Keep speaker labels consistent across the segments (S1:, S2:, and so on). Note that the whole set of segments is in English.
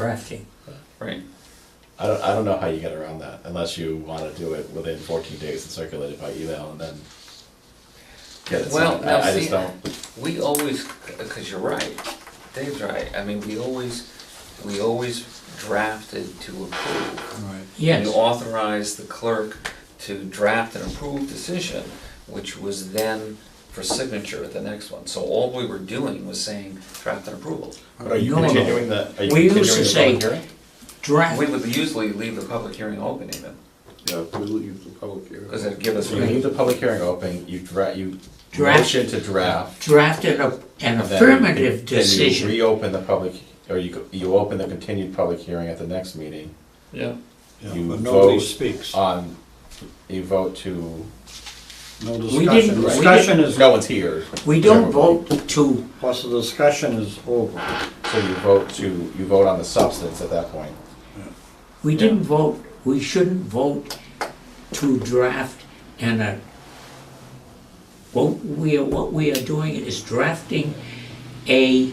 S1: drafting.
S2: Right.
S3: I don't, I don't know how you get around that unless you want to do it within 14 days and circulate it by email and then get it
S2: Well,
S3: signed.
S2: now
S3: I, I
S2: see-
S3: just don't.
S2: We always, because you're right, Dave's right, I mean, we always, we always drafted to approve.
S4: Right.
S2: You
S1: Yes,
S2: authorized the clerk to draft an approved decision, which was then for signature at the next one. So all we were doing was saying draft an approval.
S3: But are you
S1: No, no.
S3: continuing the? Are you
S1: We used to
S3: continuing the
S1: say-
S3: public hearing?
S1: draft,
S2: We would usually leave the public hearing open even,
S4: Yeah, we leave the public hearing.
S2: because it'd give us.
S3: So you leave the public hearing open. You dra- you
S1: Draft.
S3: motion to draft.
S1: drafted a- an
S3: and then
S1: affirmative
S3: you- then
S1: decision.
S3: You reopen the public, or you go- you open the continued public hearing at the next meeting
S2: Yeah.
S4: Yeah,
S3: You
S4: but nobody
S3: vote Uh,
S4: speaks.
S3: on. You vote to.
S4: No
S1: didn't-
S4: discussion.
S1: we
S4: Discussion is,
S3: No one's here.
S1: We don't vote to,
S4: plus the discussion is over.
S3: So you vote to you vote on the substance at that point.
S1: we didn't vote, we shouldn't vote to draft and a, what we are, what we are doing is drafting a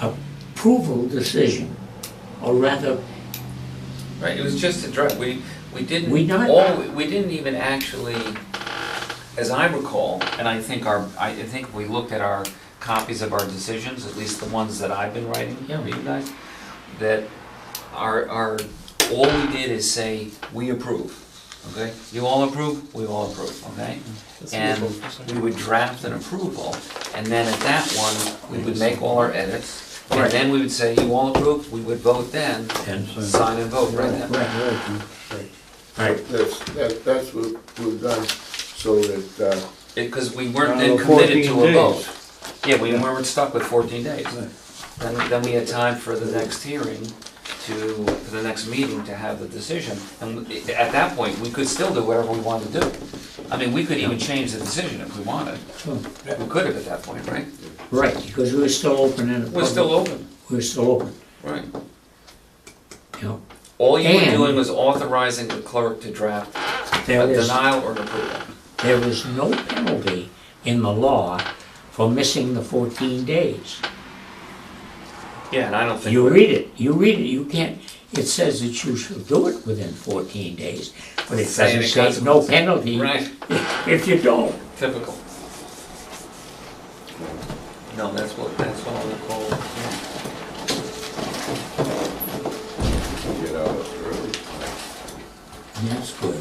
S1: approval decision, or rather,
S2: Right, it was just a draft, we, we didn't.
S1: We not-
S2: All, we didn't even actually, as I recall, and I think our, I I think we looked at our copies of our decisions, at least the ones that I've been writing here, you guys, that our, our, all we did is say, we approve, okay? You all approve, we all approve, okay? And we would draft an approval, and then at that one, we would make all our edits, and
S1: Right.
S2: then we would say, you all approve, we would vote then,
S1: and,
S2: Sign and vote right now.
S1: right,
S5: That's, that, that's what we've done, so that, uh,
S2: Because we weren't
S4: Down
S2: then
S4: to
S2: committed to
S4: 14
S2: a
S4: days.
S2: vote. Yeah, we weren't stuck with fourteen days. Then, then we had time for the next hearing to, for the next meeting to have the decision. And i- at that point, we could still do whatever we wanted to do. I mean, we could even change the decision if we wanted. We could have at that point, right?
S1: right, because we're still open in the
S2: We're still
S1: public,
S2: open,
S1: we're still open,
S2: right?
S1: you know,
S2: All you were
S1: And-
S2: doing was authorizing the clerk to draft
S1: there
S2: a
S1: is.
S2: denial or an approval.
S1: There is no penalty in the law for missing the 14 days.
S2: Yeah, and I don't think.
S1: You
S2: we're-
S1: read it, you read it, you can't, it says that you shall do it within 14 days, but it
S2: Say
S1: doesn't
S2: the
S1: say no
S2: consequences.
S1: penalty
S2: Right.
S1: if you don't.
S2: Typical. No, that's what, that's what I would call,
S5: you know, really.
S1: And That's good.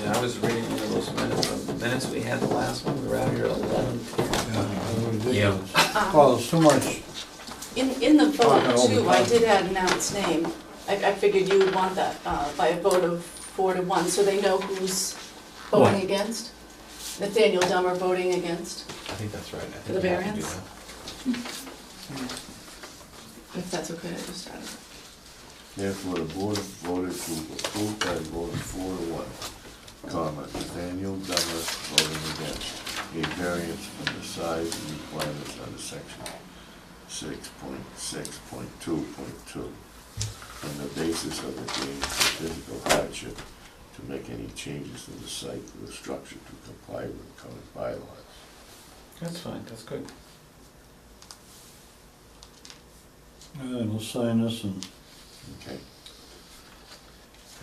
S2: yeah, I was reading one of those minutes, the minutes we had the last one, we were out here at eleven.
S1: Yeah.
S4: Oh, there's so much,
S6: In, in
S5: Oh,
S6: the vote
S4: all the
S6: too, I
S4: time.
S6: did add an out's name. I, I figured you would want that uh, by a vote of four to one, so they know who's
S1: Right.
S6: voting against. Nathaniel Dummer voting against,
S3: I think that's right. I think
S6: For the you have to do variance? that. if that's okay, I just added.
S5: Therefore, the board voted to approve by a vote of four to one, comma, Nathaniel Dummer voting against a variance from the size and requirements under section six point six point two point two on the basis of it being a physical hardship to make any changes in the site or structure to comply with current bylaws.
S2: That's fine, that's good.
S4: and uh, we'll sign this and
S5: Okay.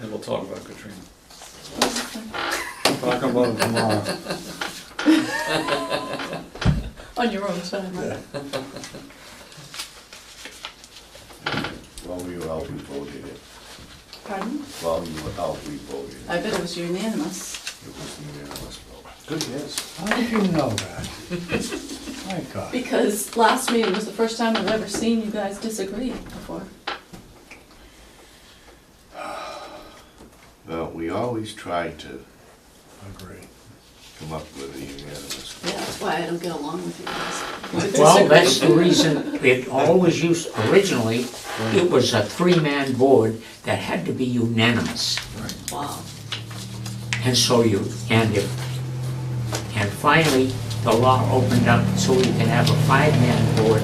S2: And we'll talk about Katrina.
S4: talk about it tomorrow.
S6: On your own time, right?
S5: While we were out, we voted it.
S6: Pardon?
S5: While we were out, we voted it.
S6: I bet it was unanimous,
S5: It was unanimous vote.
S3: Good yes.
S4: How did you know that? My God.
S6: because last meeting was the first time I've ever seen you guys disagree before.
S5: Well, we always try to
S4: Agree.
S5: come up with a unanimous.
S6: Yeah, that's why I don't get along with you guys. We
S1: Well,
S6: disagree.
S1: that's the reason it always used, originally, it was a three-man board that had to be unanimous.
S6: Wow.
S1: And so you, and if, and finally, the law opened up so you can have a five-man board,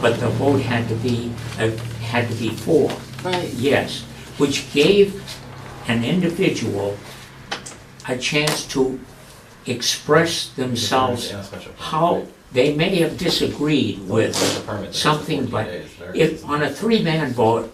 S1: but the vote had to be, uh, had to be four,
S6: Right.
S1: yes, which gave an individual a chance to express themselves how they may have disagreed with something, but if on a three-man board,